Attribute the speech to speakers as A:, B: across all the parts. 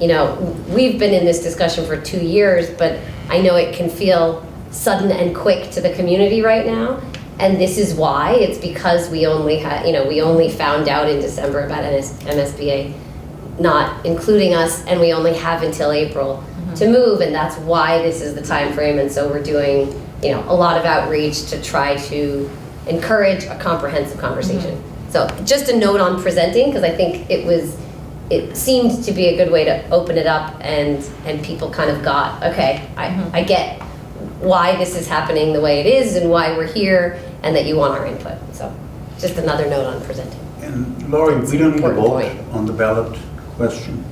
A: you know, we've been in this discussion for two years, but I know it can feel sudden and quick to the community right now. And this is why, it's because we only had, you know, we only found out in December about NS MSBA not including us, and we only have until April to move, and that's why this is the time frame. and so we're doing, you know, a lot of outreach to try to encourage a comprehensive conversation. So just a note on presenting, because I think it was, it seemed to be a good way to open it up and, and people kind of got, okay, I, I get why this is happening the way it is and why we're here, and that you want our input, so just another note on presenting.
B: And Lori, we don't need a
A: Important
B: vote
A: point.
B: on the ballot question.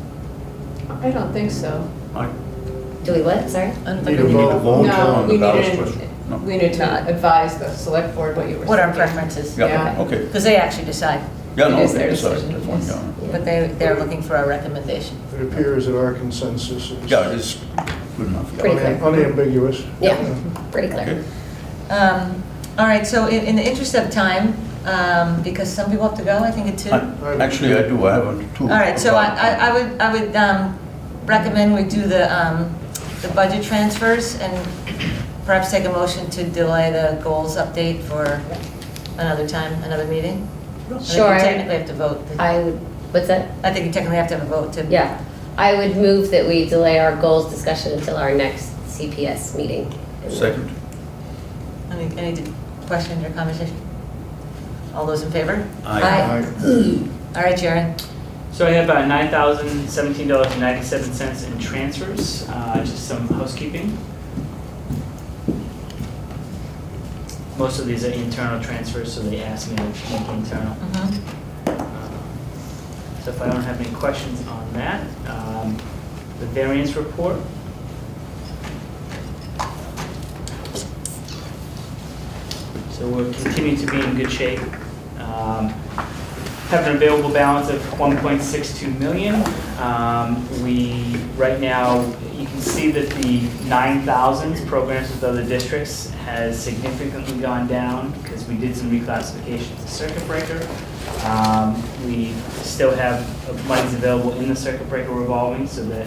C: I don't think so.
B: I
A: Do we what, sorry?
D: I don't
B: need
D: think
B: a
D: we need
B: vote on
D: to,
C: No,
B: the
C: we
B: ballot
C: need
B: question. No.
C: to, we need to advise the select board what you were
D: what our
C: thinking.
D: preference is.
B: Yeah,
C: Yeah.
B: okay.
D: Because they actually decide,
B: Yeah,
C: It
B: no,
C: is
B: okay,
C: their
B: that's right,
C: decision,
B: that's fine,
C: yes.
B: yeah.
D: but they, they're looking for our recommendation.
E: It appears that our consensus is
B: Yeah, it's good enough. yeah.
A: Pretty clear.
E: unambiguous.
A: Yeah, pretty
B: Okay.
A: clear.
D: Um, All right, so in, in the interest of time, um, because some people have to go, I think at two. All
B: I- Actually, I do, I have a two.
D: right, so I, I I would, I would um, recommend we do the, um, the budget transfers and perhaps take a motion to delay the goals update for another time, another meeting. I think you
A: Sure.
D: Technically have to vote.
A: I would, what's that?
D: I think you technically have to have a vote to.
A: Yeah, I would move that we delay our goals discussion until our next CPS meeting.
B: Second.
D: Any, any questions or conversation? All those in favor?
A: Aye.
D: All right, Sharon.
F: So I have uh, $9,017.97 in transfers, uh, just some housekeeping. Most of these are internal transfers, so they asked me to make internal. So if I don't have any questions on that, um, the variance report. So we're continuing to be in good shape. Um, Have an available balance of 1.62 million. Um, We, right now, you can see that the 9,000 programs with other districts has significantly gone down because we did some reclassifications to circuit breaker. Um, We still have monies available in the circuit breaker revolving, so that,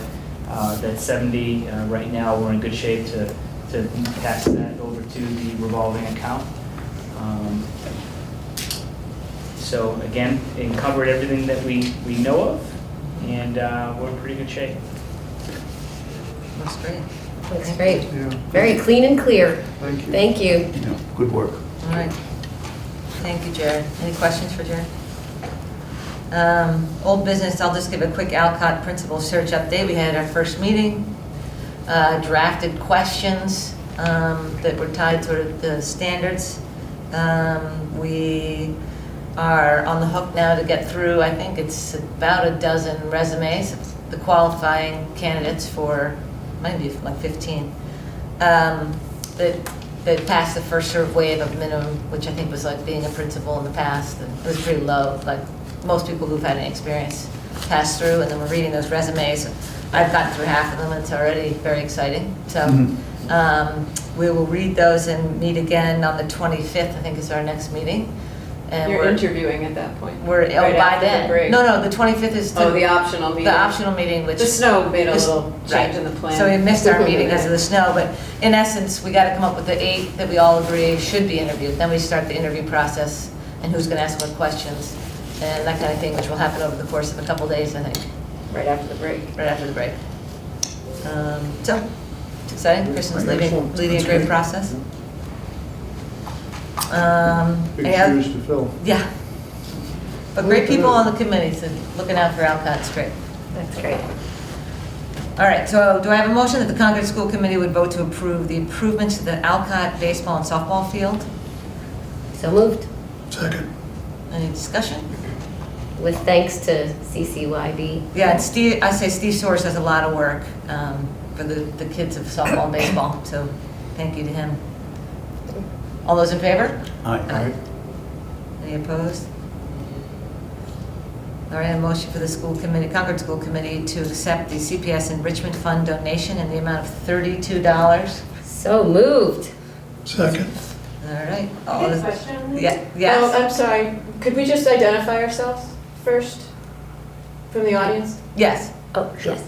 F: uh, that 70, uh, right now, we're in good shape to, to pass that over to the revolving account. Um, So again, it covered everything that we, we know of, and uh, we're in pretty good shape.
D: That's great.
A: Looks great.
E: Yeah,
A: Very clean and clear.
E: thank you.
A: Thank you.
B: Yeah, Good work.
D: All right. Thank you, Jared. Any questions for Jared? Um, Old business, I'll just give a quick Alcott principal search update. We had our first meeting, uh, drafted questions um, that were tied to the standards. Um, We are on the hook now to get through, I think it's about a dozen resumes, the qualifying candidates for, might be like 15, um, that, that passed the first sort of wave of minimum, which I think was like being a principal in the past, and it was pretty low, like most people who've had any experience pass through, and then we're reading those resumes. I've gotten through half of them, and it's already very exciting, so. um, We will read those and meet again on the 25th, I think is our next meeting. and
C: You're
D: we're-
C: interviewing at that point.
D: we're, oh,
C: Right
D: by
C: after the
D: then.
C: break.
D: No, no, the 25th is
C: Oh, the
D: the,
C: optional meeting.
D: the optional meeting, which.
C: The snow made a
D: is-
C: little change in the
D: right.
C: plan.
D: So we missed our meeting because of the snow, but in essence, we gotta come up with the eight that we all agree should be interviewed. Then we start the interview process and who's gonna ask what questions and that kind of thing, which will happen over the course of a couple days, I think,
C: Right after the break.
D: right after the break. Um, So, it's exciting, Kristen's leading,
B: Excellent.
D: leading a
B: That's
D: great
B: great.
D: process. Um,
E: Big
D: any other-
E: shoes to fill.
D: yeah. But great people on the committee, so looking out for Alcott's great.
A: That's great.
D: All right, so do I have a motion that the Concord School Committee would vote to approve the improvements to the Alcott baseball and softball field?
A: So moved,
E: Second.
D: Any discussion?
A: with thanks to CCYB.
D: Yeah, and Steve, I say Steve Soares does a lot of work um, for the, the kids of softball and baseball, so thank you to him. All those in favor?
B: Aye.
D: Any opposed? All right, a motion for the school committee, Concord School Committee to accept the CPS Enrichment Fund donation in the amount of $32. All
A: So moved.
E: Second.
D: right.
G: I
D: All
G: have a
D: those-
G: question.
D: Yeah,
G: Oh,
D: Oh, yes,
G: I'm sorry. Could we just identify ourselves first from the audience?
D: yes.
A: Oh, yes.